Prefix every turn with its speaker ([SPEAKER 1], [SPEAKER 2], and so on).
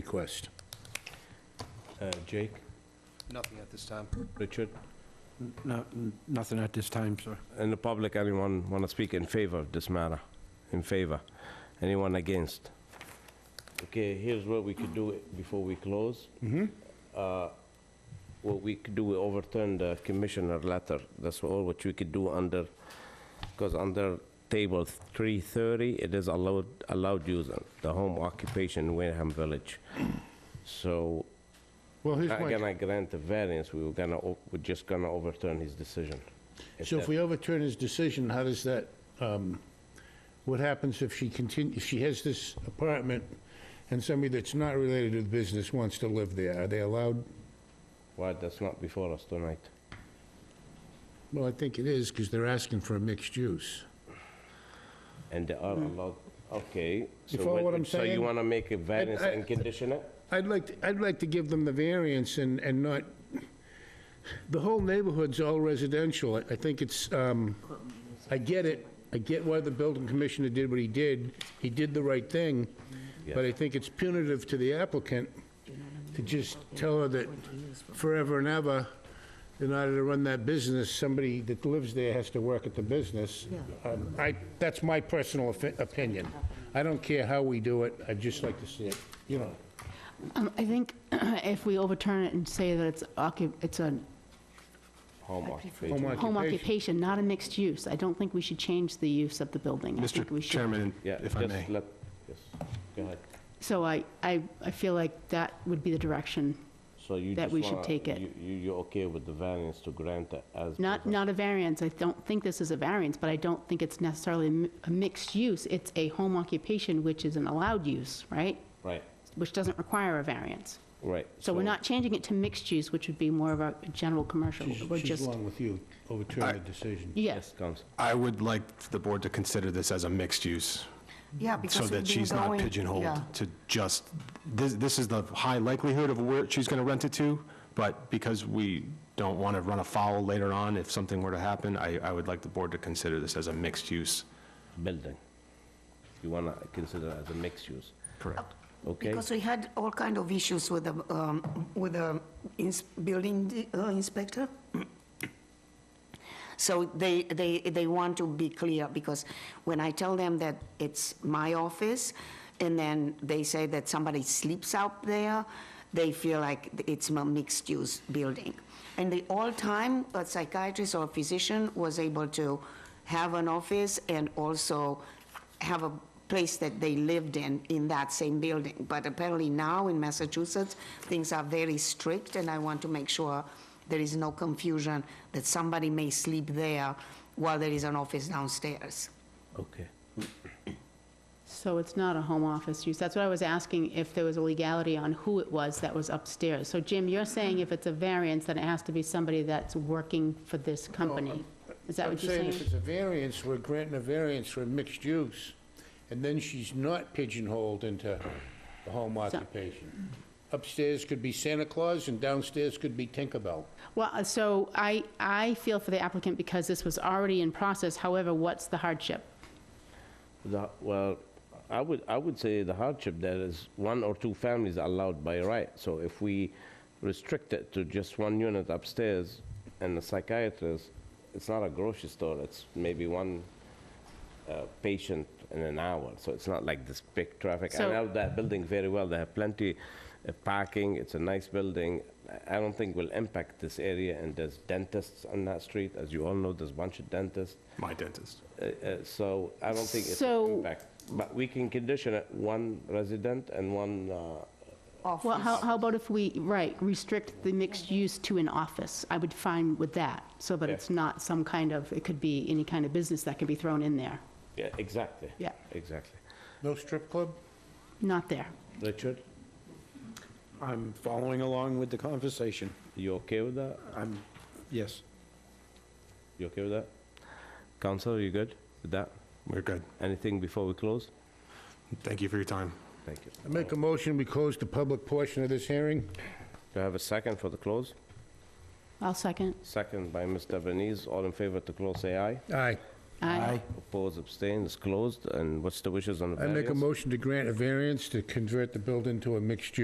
[SPEAKER 1] request. Uh, Jake,
[SPEAKER 2] Nothing at this time.
[SPEAKER 1] Richard,
[SPEAKER 3] No, n- nothing at this time, sir.
[SPEAKER 4] In the public, anyone want to speak in favor of this matter? In favor? Anyone against? Okay, here's what we could do before we close.
[SPEAKER 3] Mm-hmm.
[SPEAKER 4] Uh, What we could do, we overturn the commissioner letter. That's all what we could do under, because under table 330, it is allowed, allowed using the home occupation in Wareham Village. So,
[SPEAKER 5] Well, here's
[SPEAKER 4] not
[SPEAKER 5] my,
[SPEAKER 4] gonna grant the variance, we were gonna, o- we're just gonna overturn his decision.
[SPEAKER 5] so if we overturn his decision, how does that, um, what happens if she continue, if she has this apartment and somebody that's not related to the business wants to live there? Are they allowed?
[SPEAKER 4] Well, that's not before us tonight.
[SPEAKER 5] Well, I think it is because they're asking for a mixed use.
[SPEAKER 4] And they are allowed, okay. so
[SPEAKER 5] You follow Hmm. what I'm
[SPEAKER 4] So you
[SPEAKER 5] saying? uh,
[SPEAKER 4] want to make a variance
[SPEAKER 5] I-
[SPEAKER 4] and condition it?
[SPEAKER 5] I'd like, to- I'd like to give them the variance and, and not, the whole neighborhood's all residential. I I think it's, um, I get it, I get why the building commissioner did what he did. He did the right thing, but I think it's punitive to the applicant to just tell her that forever and ever, in order to run that business, somebody that lives there has to work at the business. Um, I, that's my personal opi- opinion. I don't care how we do it, I'd just like to see it, you know.
[SPEAKER 6] Um, I think if we overturn it and say that it's occup, it's a
[SPEAKER 4] Home occupation.
[SPEAKER 6] home occupation, not a mixed use, I don't think we should change the use of the building. I think we
[SPEAKER 3] Mr.
[SPEAKER 6] should-
[SPEAKER 3] Chairman,
[SPEAKER 4] Yeah,
[SPEAKER 3] if I
[SPEAKER 4] just
[SPEAKER 3] may.
[SPEAKER 4] let- Yes, go ahead.
[SPEAKER 6] So I, I, I feel like that would be the direction.
[SPEAKER 4] So you
[SPEAKER 6] That
[SPEAKER 4] just
[SPEAKER 6] we should
[SPEAKER 4] wanna-
[SPEAKER 6] take it.
[SPEAKER 4] you- You, you're okay with the variance to grant it as?
[SPEAKER 6] Not,
[SPEAKER 4] present?
[SPEAKER 6] not a variance, I don't think this is a variance, but I don't think it's necessarily a mi- a mixed use. It's a home occupation, which is an allowed use, right?
[SPEAKER 4] Right,
[SPEAKER 6] Which doesn't require a variance.
[SPEAKER 4] right.
[SPEAKER 6] So we're not changing it to mixed use, which would be more of a general commercial. We're
[SPEAKER 5] She's
[SPEAKER 6] just,
[SPEAKER 5] along with you, overturn the decision.
[SPEAKER 6] yeah,
[SPEAKER 4] Yes, Counsel.
[SPEAKER 3] I would like the board to consider this as a mixed use,
[SPEAKER 7] Yeah,
[SPEAKER 3] so
[SPEAKER 7] because
[SPEAKER 3] that
[SPEAKER 7] we've been
[SPEAKER 3] she's not
[SPEAKER 7] going- yeah.
[SPEAKER 3] pigeonholed to just, this, this is the high likelihood of where she's going to rent it to, but because we don't want to run afoul later on if something were to happen, I, I would like the board to consider this as a mixed use.
[SPEAKER 4] Building. You want to consider it as a mixed use,
[SPEAKER 3] Correct.
[SPEAKER 4] okay?
[SPEAKER 7] Because we had all kind of issues with the, um, with the ins- building di- uh, inspector. So they, they, they want to be clear, because when I tell them that it's my office, and then they say that somebody sleeps out there, they feel like it's a mixed-use building. And the all time, a psychiatrist or physician was able to have an office and also have a place that they lived in, in that same building. But apparently now in Massachusetts, things are very strict, and I want to make sure there is no confusion that somebody may sleep there while there is an office downstairs.
[SPEAKER 4] Okay.
[SPEAKER 6] so it's not a home office use. That's what I was asking, if there was a legality on who it was that was upstairs. So Jim, you're saying if it's a variance, then it has to be somebody that's working for this company. Is that what you're
[SPEAKER 5] I'm
[SPEAKER 6] saying?
[SPEAKER 5] saying if it's a variance, we're granting a variance for mixed use, and then she's not pigeonholed into the home occupation. Upstairs could be Santa Claus, and downstairs could be Tinkerbell.
[SPEAKER 6] Well, uh, so I, I feel for the applicant because this was already in process. However, what's the hardship?
[SPEAKER 4] The- Well, I would, I would say the hardship there is one or two families allowed by right. So if we restrict it to just one unit upstairs and the psychiatrist, it's not a grocery store, it's maybe one uh, patient in an hour. So it's not like this big traffic. I
[SPEAKER 6] So-
[SPEAKER 4] know that building very well, they have plenty of parking, it's a nice building. I- I don't think will impact this area and there's dentists on that street. As you all know, there's a bunch of dentists.
[SPEAKER 3] My dentist.
[SPEAKER 4] Uh, uh, So I don't think it's an
[SPEAKER 6] So-
[SPEAKER 4] impact. But we can condition it, one resident and one, uh,
[SPEAKER 6] Well,
[SPEAKER 7] Office.
[SPEAKER 6] how, how about if we, right, restrict the mixed use to an office? I would find with that, so that
[SPEAKER 4] Yeah.
[SPEAKER 6] it's not some kind of, it could be any kind of business that can be thrown in there.
[SPEAKER 4] yeah, exactly.
[SPEAKER 6] Yeah.
[SPEAKER 4] Exactly.
[SPEAKER 5] No strip club?
[SPEAKER 6] Not there.
[SPEAKER 4] Richard,
[SPEAKER 8] I'm following along with the conversation.
[SPEAKER 4] you okay with that?
[SPEAKER 8] I'm, yes.
[SPEAKER 4] You okay with that? Council, you good with that?
[SPEAKER 3] We're good.
[SPEAKER 4] Anything before we close?
[SPEAKER 3] Thank you for your time.
[SPEAKER 4] Thank you.
[SPEAKER 5] I make a motion, we close the public portion of this hearing.
[SPEAKER 4] Do I have a second for the close?
[SPEAKER 6] I'll second.
[SPEAKER 4] Second by Mr. Venese. All in favor to close, say aye.
[SPEAKER 5] Aye.
[SPEAKER 6] Aye.
[SPEAKER 4] Oppose, abstain, it's closed. And what's the wishes on the
[SPEAKER 5] I
[SPEAKER 4] variance?
[SPEAKER 5] make a motion to grant a variance to convert the building to a mixed use.